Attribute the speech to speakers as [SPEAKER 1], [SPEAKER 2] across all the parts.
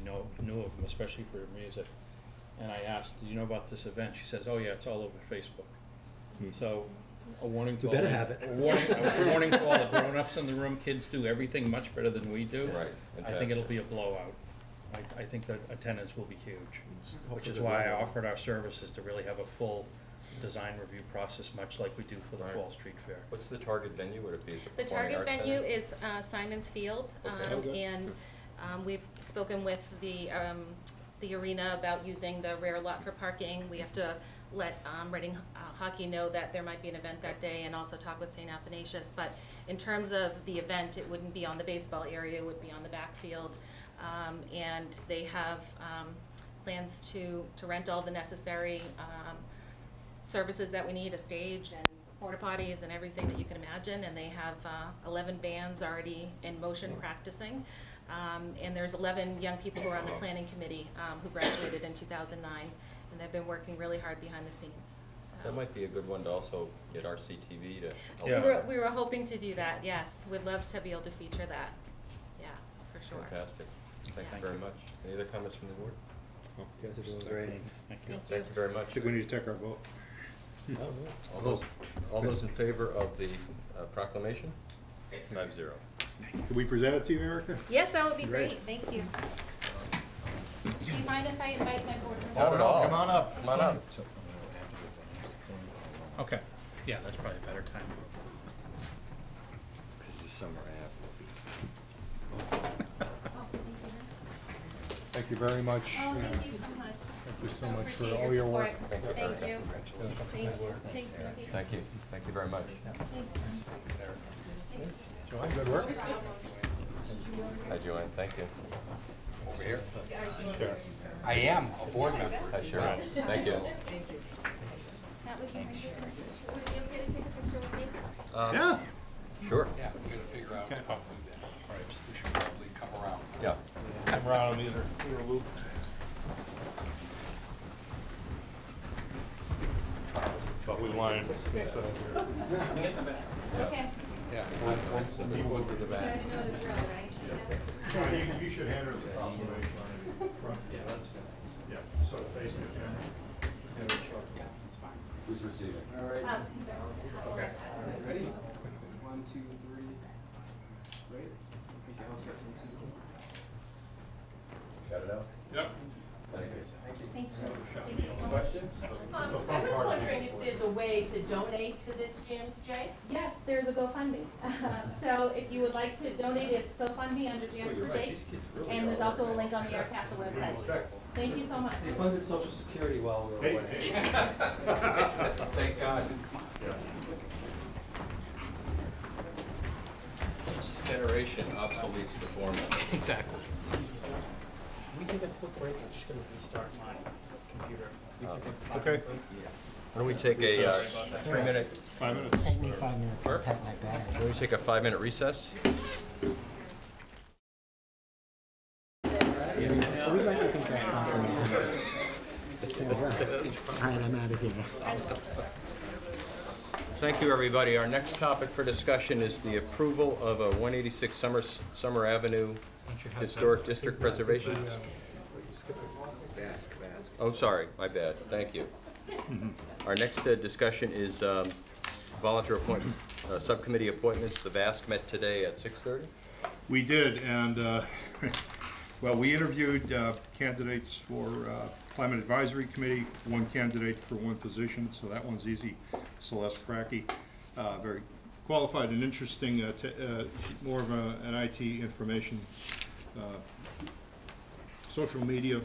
[SPEAKER 1] knew of him, especially for music. And I asked, "Do you know about this event?" She says, "Oh yeah, it's all over Facebook." So, a warning to
[SPEAKER 2] We
[SPEAKER 1] all
[SPEAKER 2] Hmm. better
[SPEAKER 1] the-
[SPEAKER 2] have it.
[SPEAKER 1] A warning, a warning to all the grown-ups in the room. Kids do everything much better than we do.
[SPEAKER 3] Right,
[SPEAKER 1] I think it'll
[SPEAKER 3] fantastic.
[SPEAKER 1] be a blowout. I, I think the attendance will be huge, which
[SPEAKER 2] Hopefully
[SPEAKER 1] is
[SPEAKER 2] the
[SPEAKER 1] why I
[SPEAKER 2] weather-
[SPEAKER 1] offered our services to really have a full design review process, much like we do for the
[SPEAKER 3] Right.
[SPEAKER 1] Fall Street Fair.
[SPEAKER 3] What's the target venue? Would it be? at
[SPEAKER 4] The
[SPEAKER 3] Performing
[SPEAKER 4] target
[SPEAKER 3] Arts
[SPEAKER 4] venue
[SPEAKER 3] Center?
[SPEAKER 4] is uh, Simon's Field,
[SPEAKER 3] Okay.
[SPEAKER 4] um,
[SPEAKER 3] Okay.
[SPEAKER 4] and um, we've spoken with the, um, the arena about using the rear lot for parking. We have to let um, Reading uh, Hockey know that there might be an event that day and also talk with St. Athanasius. But in terms of the event, it wouldn't be on the baseball area, it would be on the backfield. Um, And they have um, plans to, to rent all the necessary um, services that we need, a stage and porta potties and everything that you can imagine, and they have uh, eleven bands already in motion practicing. Um, And there's eleven young people who are on the planning committee um, who graduated in two thousand nine, and they've been working really hard behind the scenes, so.
[SPEAKER 3] That might be a good one to also get RCTV to help.
[SPEAKER 1] Yeah.
[SPEAKER 4] We were, we were hoping to do that, yes, we'd love to be able to feature that, yeah, for sure.
[SPEAKER 3] Fantastic. Thank you
[SPEAKER 1] Thank
[SPEAKER 3] very
[SPEAKER 1] you.
[SPEAKER 3] much. Any other comments from the board?
[SPEAKER 2] Oh, You guys are doing great.
[SPEAKER 1] Thank you.
[SPEAKER 4] Thank you.
[SPEAKER 3] Thank you very much.
[SPEAKER 5] Think we need to take our vote.
[SPEAKER 3] All those, all those in favor of the uh, proclamation? Five zero.
[SPEAKER 5] Can we present it to you, Erica?
[SPEAKER 4] Yes, that would be
[SPEAKER 5] Great.
[SPEAKER 4] great, thank you. Do you mind if I invite my board members?
[SPEAKER 3] Not at all.
[SPEAKER 5] Come on up.
[SPEAKER 3] Come on up.
[SPEAKER 1] Okay, yeah, that's probably a better time.
[SPEAKER 4] Oh, thank you.
[SPEAKER 5] Thank you very much.
[SPEAKER 4] Oh,
[SPEAKER 5] Yeah.
[SPEAKER 4] thank you so much.
[SPEAKER 5] Thank you so
[SPEAKER 4] I
[SPEAKER 5] much for
[SPEAKER 4] appreciate
[SPEAKER 5] all your work.
[SPEAKER 4] support.
[SPEAKER 3] Thank you.
[SPEAKER 4] Thank you.
[SPEAKER 5] Yeah.
[SPEAKER 4] Thanks, thanks, Timothy.
[SPEAKER 3] Thank you. Thank you very much.
[SPEAKER 4] Thanks. um,
[SPEAKER 5] John, good work.
[SPEAKER 3] Hi, Joanne. Thank you.
[SPEAKER 6] Over here? I am a board member.
[SPEAKER 3] Hi, Sharon. Thank you.
[SPEAKER 4] Matt, would you mind taking a picture? Would it be okay to take a picture with me?
[SPEAKER 3] Um,
[SPEAKER 5] Yeah.
[SPEAKER 3] Sure.
[SPEAKER 6] Yeah, we gotta figure out,
[SPEAKER 5] Okay.
[SPEAKER 6] how to do that. we should probably come around.
[SPEAKER 3] Yeah.
[SPEAKER 5] I'm around either, either loop. But we lined.
[SPEAKER 4] Okay.
[SPEAKER 6] Yeah, we'll, we'll move it to the back.
[SPEAKER 4] That's not a drill, right?
[SPEAKER 5] You should hand her the proclamation. Yeah, that's fine. Yeah, so face the camera.
[SPEAKER 3] Who's receiving?
[SPEAKER 7] All right,
[SPEAKER 4] Um, so, how will that happen?
[SPEAKER 7] ready? One, two, three. Right? I think Al's got some too.
[SPEAKER 3] Got it out?
[SPEAKER 4] Thank you.
[SPEAKER 7] Questions?
[SPEAKER 8] Um, I was wondering if there's a way to donate to this James J?
[SPEAKER 4] Yes, there's a GoFundMe. So if you would like to donate, it's GoFundMe under Jams for Jake. And there's also a link on the Air Castle website. Thank you so much.
[SPEAKER 2] They funded social security while we were away.
[SPEAKER 7] Oh,
[SPEAKER 6] Thank God.
[SPEAKER 3] Each generation obsoletes the former.
[SPEAKER 1] Exactly.
[SPEAKER 9] We take a quick break, I'm just gonna restart my computer. We take a five-
[SPEAKER 5] Okay,
[SPEAKER 3] Why don't we take a uh, a three-minute
[SPEAKER 5] five minutes.
[SPEAKER 9] Take me five minutes to
[SPEAKER 3] Sure.
[SPEAKER 9] pack my bag.
[SPEAKER 3] Why don't we take a five-minute recess?
[SPEAKER 9] All right, I'm out of here.
[SPEAKER 3] Thank you, everybody. Our next topic for discussion is the approval of a 186 Summer, Summer Avenue Historic District Preservation. Oh, sorry, my bad. Thank you. Our next uh, discussion is um, volunteer appointment, uh, subcommittee appointments. The VASC met today at 6:30.
[SPEAKER 5] We did, and, uh, well, we interviewed uh, candidates for uh, Climate Advisory Committee, one candidate for one position, so that one's easy. Celeste Cracky, uh, very qualified and interesting, uh, te- uh, more of a- an IT information, uh, social media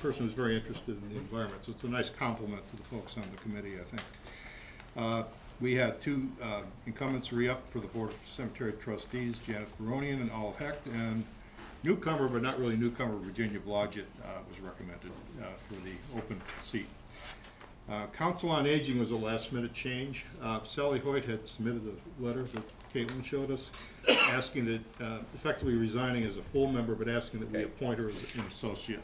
[SPEAKER 5] person who's very interested in the environment. So it's a nice compliment to the folks on the committee, I think. Uh, We had two uh, incumbents re-up for the Board of Cemetery Trustees, Janet Baronian and Olive Hecht, and newcomer, but not really newcomer, Virginia Blodgett uh, was recommended uh, for the open seat. Uh, Council on Aging was a last-minute change. Uh, Sally Hoyt had submitted a letter that Caitlin showed us, asking that, uh, effectively resigning as a full member, but asking that we appoint her as an associate.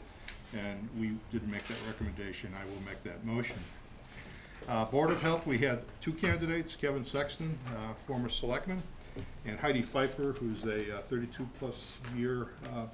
[SPEAKER 5] And we didn't make that recommendation. I will make that motion. Uh, Board of Health, we had two candidates, Kevin Sexton, uh, former selectman, and Heidi Pfeiffer, who's a 32-plus year uh,